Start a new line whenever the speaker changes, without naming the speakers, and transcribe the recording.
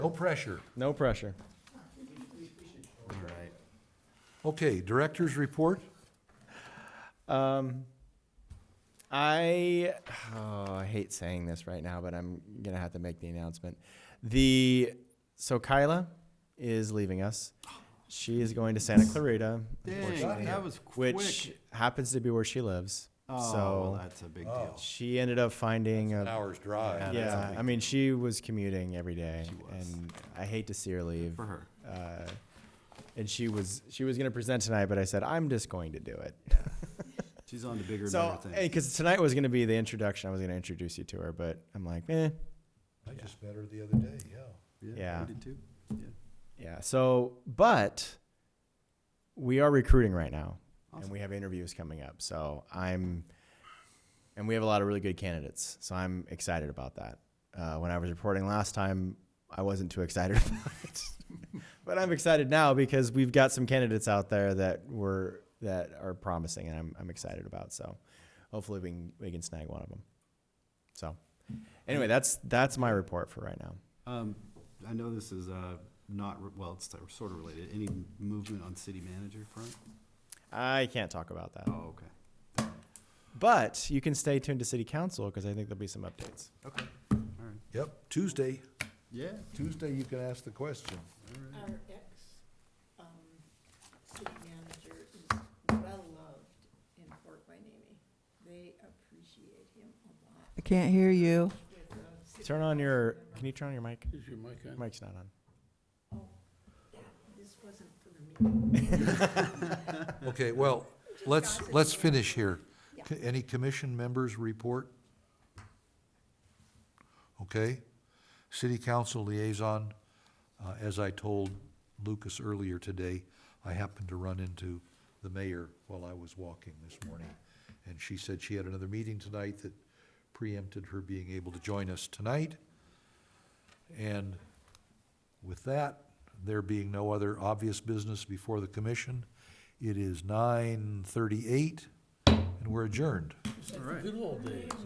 No pressure.
No pressure.
All right. Okay, director's report?
Um, I oh, I hate saying this right now, but I'm gonna have to make the announcement. The so Kyla is leaving us. She is going to Santa Clarita, unfortunately,
that was quick.
which happens to be where she lives.
Oh, well,
so
that's a big deal.
she ended up finding a,
Hour's drive.
yeah. I mean, she was commuting every day,
was.
and I hate to see her leave.
For her.
Uh, and she was she was gonna present tonight, but I said I'm just going to do it.
She's on the bigger and
So,
better thing.
because tonight was going to be the introduction, I was going to introduce you to her, but I'm like, eh,
I just met her the other day, yeah.
yeah.
We did too. Yeah.
yeah. So, but we are recruiting right now,
Awesome.
and we have interviews coming up. So I'm, and we have a lot of really good candidates. So I'm excited about that. Uh, when I was reporting last time, I wasn't too excited about it, but I'm excited now because we've got some candidates out there that were that are promising, and I'm I'm excited about. So hopefully we can we can snag one of them. So anyway, that's that's my report for right now.
Um, I know this is, uh, not, re- well, it's sort of related. Any movement on city manager front?
I can't talk about that.
Oh, okay.
But you can stay tuned to City Council because I think there'll be some updates.
Okay, all right.
Yep, Tuesday,
Yeah.
Tuesday you can ask the question.
Our ex, um, city manager is well loved in Fort Wayne. They appreciate him a lot
I can't hear you.
with the city.
Turn on your. Can you turn on your mic?
Is your mic on?
Mic's not on.
Oh, that, this wasn't for the meeting.
Okay, well, let's, let's finish here. C- Any commission members report? Okay. City council liaison, uh, as I told Lucas earlier today, I happened to run into the mayor while I was walking this morning. And she said she had another meeting tonight that preempted her being able to join us tonight. And with that, there being no other obvious business before the commission, it is nine thirty-eight, and we're adjourned.
Good old days.